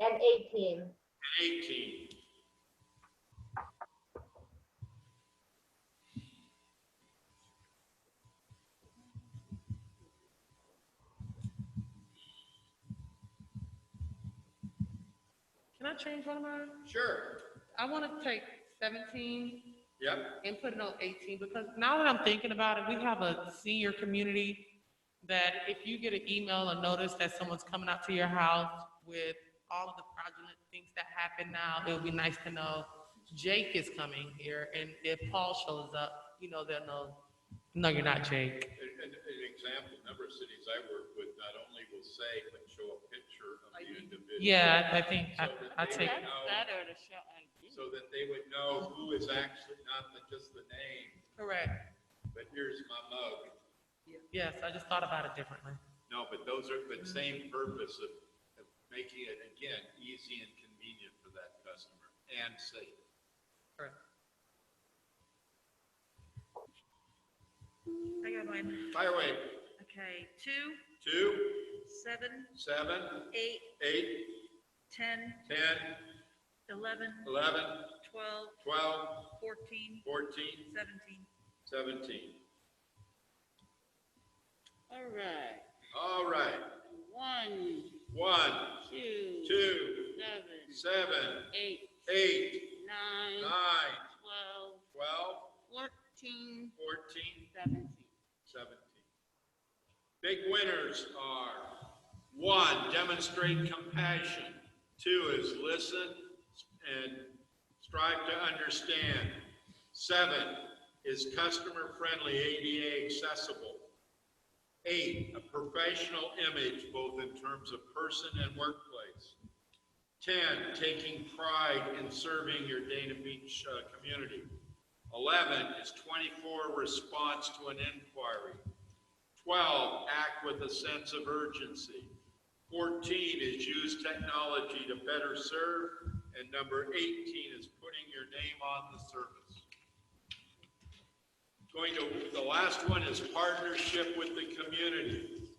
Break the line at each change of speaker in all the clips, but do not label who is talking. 18.
18.
Can I change one of mine?
Sure.
I want to take seventeen
Yep.
and put it on eighteen, because now that I'm thinking about it, we have a senior community that if you get an email or notice that someone's coming out to your house with all of the fraudulent things that happen now, it would be nice to know Jake is coming here, and if Paul shows up, you know, they'll know, no, you're not Jake.
An, an, an example, a number of cities I work with not only will say, but show a picture of the individual.
Yeah, I think, I, I
So
take,
that they know-
to show ID.
So that they would know who is actually, not the- just the name,
correct,
but here's my mug.
yes, I just thought about it differently.
No, but those are, but same purpose of, of making it, again, easy and convenient for that customer and safe.
Correct.
I got mine.
Fire away,
Okay, two,
two,
seven,
seven,
eight,
eight,
ten,
ten,
eleven,
eleven,
twelve,
twelve,
fourteen,
fourteen,
seventeen.
seventeen.
All right,
All right,
one,
one,
two,
two,
seven,
seven,
eight,
eight,
nine,
nine,
twelve,
twelve,
fourteen,
fourteen,
seventeen.
17. Big winners are, one, demonstrate compassion. Two is listen and strive to understand. Seven is customer-friendly, ADA accessible. Eight, a professional image, both in terms of person and workplace. 10, taking pride in serving your Dana Beach uh, community. 11 is 24, response to an inquiry. 12, act with a sense of urgency. 14 is use technology to better serve. And number 18 is putting your name on the service. Going to, the last one is partnership with the community,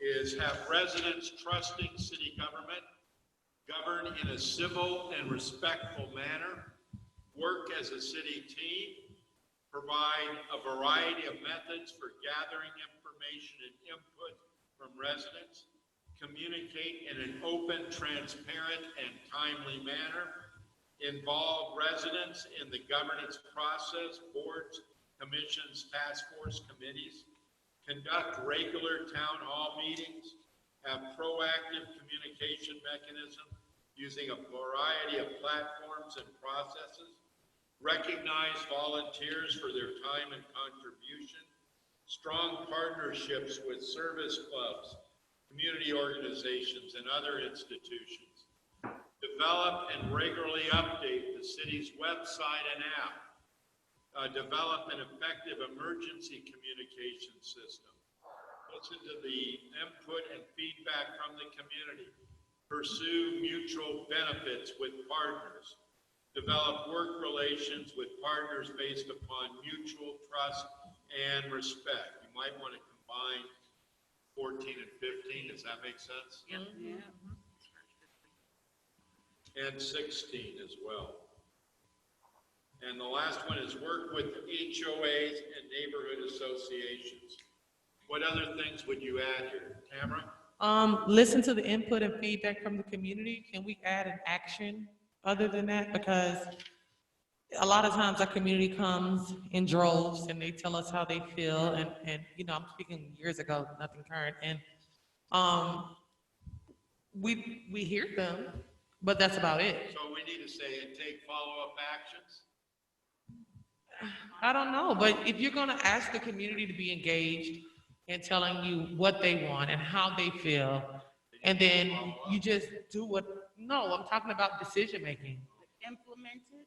is have residents trusting city government, govern in a civil and respectful manner, work as a city team, provide a variety of methods for gathering information and input from residents, communicate in an open, transparent, and timely manner, involve residents in the governance process, boards, commissions, task force committees, conduct regular town hall meetings, have proactive communication mechanism using a variety of platforms and processes, recognize volunteers for their time and contribution, strong partnerships with service clubs, community organizations, and other institutions, develop and regularly update the city's website and app, uh, develop an effective emergency communication system, listen to the input and feedback from the community, pursue mutual benefits with partners, develop work relations with partners based upon mutual trust and respect. You might want to combine 14 and 15, does that make sense?
Yeah.
and 16 as well. And the last one is work with HOAs and neighborhood associations. What other things would you add here, Tamara?
Um, listen to the input and feedback from the community. Can we add an action other than that? Because a lot of times our community comes in droves and they tell us how they feel and, and, you know, I'm speaking years ago, nothing current, and, um, we, we hear them, but that's about it.
So we need to say and take follow-up actions.
I don't know, but if you're gonna ask the community to be engaged in telling you what they want and how they feel, and then you just do what, no, I'm talking about decision making.
Implemented?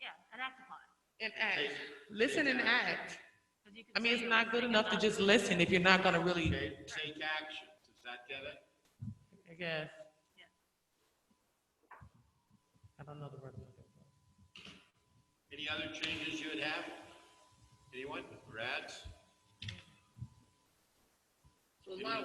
Yeah, and act upon it.
And act, listen and act.
'Cause you can
I mean,
say
it's
it,
not good
take it
enough to
not-
just listen if you're not gonna really,
Okay, take action. Does that get it?
I guess. I don't know the word.
Any other changes you would have? Anyone? Rads?
So a lot